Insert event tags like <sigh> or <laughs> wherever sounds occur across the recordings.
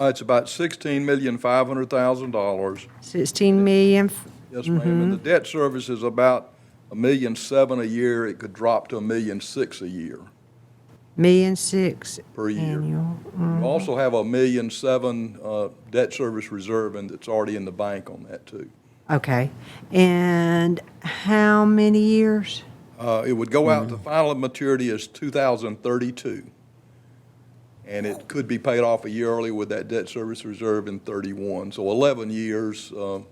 Uh, It's about sixteen million, five hundred thousand dollars. 16 million, f- Yes, ma'am, and the debt service is about a million seven a year. It could drop to a million six a year, million six per year. annual. Mm, We also have a million seven uh, debt service reserve, and it's already in the bank on that, too. Okay. And how many years? Uh, It would go out, the final maturity is 2032, and it could be paid off a year early with that debt service reserve in 31. So 11 years, uh,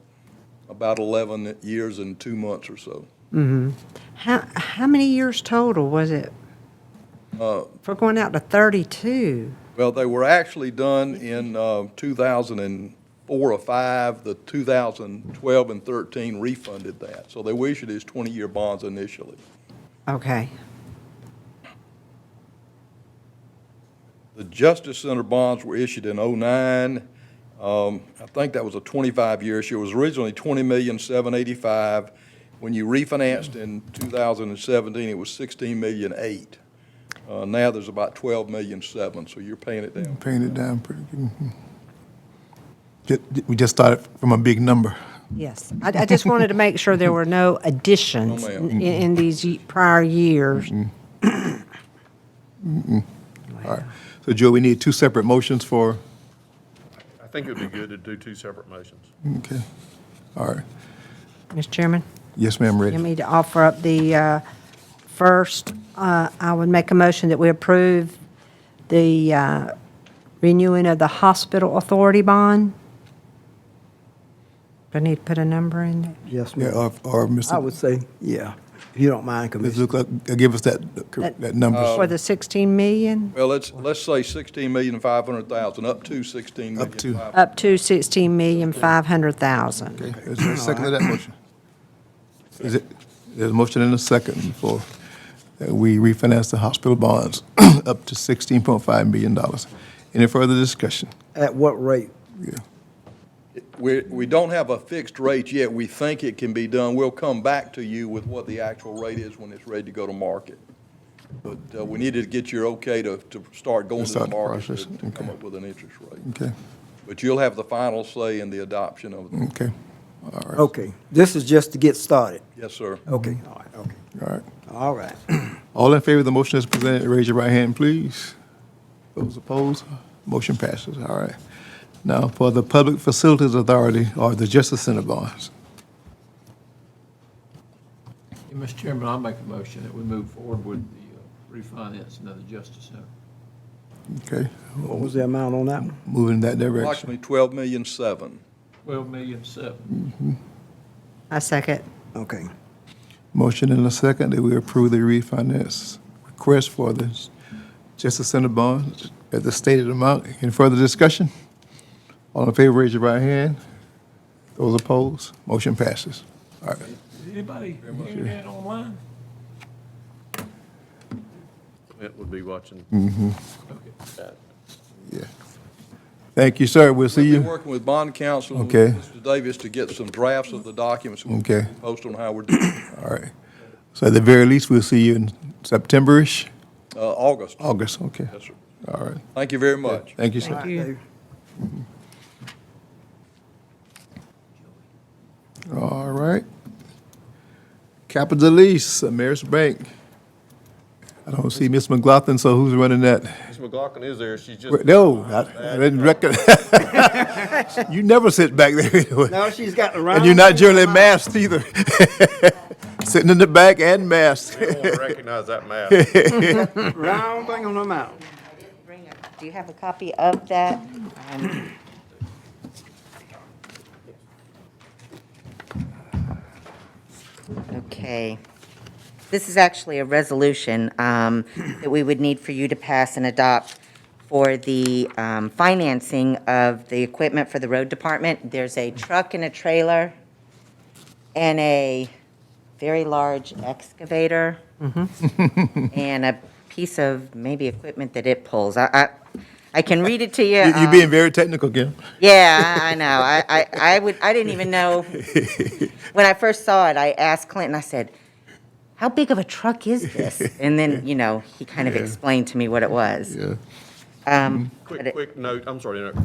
about 11 years and two months or so. How, how many years total was it? Uh, For going out to 32? Well, they were actually done in uh, 2004 or 5. The 2012 and 13 refunded that. So they issued these 20-year bonds initially. Okay. The Justice Center bonds were issued in '09. Um, I think that was a 25-year issue. It was originally 20 million, 785. When you refinanced in 2017, it was 16 million, 8. Uh, Now there's about 12 million, 7, so you're paying it down. Paying it down pretty good. Mhm. Ju- We just started from a big number. Yes. I, I just wanted to make sure there were no additions <laughs> No, ma'am. in, in these ye- prior years. <coughs> So Joe, we need two separate motions for, I think it would be good to do two separate motions. okay. All right. Mr. Chairman? Yes, ma'am, You ready. need to offer up the, uh, first, uh, I would make a motion that we approve the uh, renewing of the hospital authority bond. Do I need to put a number in there? Yes, Yeah, ma'am. or, or I Mr. would say, yeah, if you don't mind, Ms. Commissioner. Zucker, uh, give us that, that For number, the 16 million, Well, let's, let's say 16 million, 500,000, up to 16 million. up to. up to 16 million 500,000. Okay, Is there a second to that motion? Is it, there's a motion and a second for, that we refinance the hospital bonds <clears throat> up to sixteen point five million dollars. Any further discussion? At what rate? Yeah. We, we don't have a fixed rate yet. We think it can be done. We'll come back to you with what the actual rate is when it's ready to go to market. But uh, we needed to get your okay to, to start going To to the start the market to- process, to come okay. up with an interest rate. Okay, But you'll have the final say in the adoption of, the- okay, Okay, this is just to get started. yes, sir. Okay, Mm-hmm. all right, okay, all right. all right. <clears throat> All in favor of the motion as presented, raise your right hand, please. Those opposed, motion passes. All right. Now, for the Public Facilities Authority or the Justice Center bonds. Yeah, Mr. Chairman, I'll make a motion that we move forward with the uh, refinance and the Justice Center. Okay, What was the amount on that one? moving in that direction. Approximately 12 million seven. Twelve million seven. I second. Okay, Motion and a second that we approve the refinance request for the Justice Center bonds at the stated amount. Any further discussion? All in favor, raise your right hand. Those opposed, motion passes. All right. Is anybody hearing that online? It would be watching. Okay. Yeah. Thank you, sir. We'll see We'll be you. working with bond counsel. and Okay. Mr. Davis to get some drafts of the documents. We'll Okay. Post on how we're doing, All right. So at the very least, we'll see you in September-ish, uh, August. August, okay. Yes, sir. All right. Thank you very much. Thank you, sir. Dave, All right. Capital Lease, Ameris Bank. I don't see Miss McLaughlin, so who's running that? Ms. McLaughlin is there, she's <laughs> just. Wait, No, I I didn't reckon. <laughs> You never sit back there anyway. Now she's got the round. And you're not generally masked either. <laughs> Sitting in the back and masked. I don't recognize that mask. Round thing on her mouth. Bring it. Do you have a copy of that? Um, Okay. This is actually a resolution um, that we would need for you to pass and adopt for the um, financing of the equipment for the road department. There's a truck and a trailer and a very large excavator Mm-hmm. <laughs> and a piece of maybe equipment that it pulls. I, I, I can read it to you. You- You're um, being very technical, Kim. yeah, I I know. I, I, I would, I didn't even know. When I first saw it, I asked Clinton, I said, how big of a truck is this? And then, you know, he kind of explained to me what it was. Yeah. Um, but Quick, it- quick note, I'm sorry, to interrupt.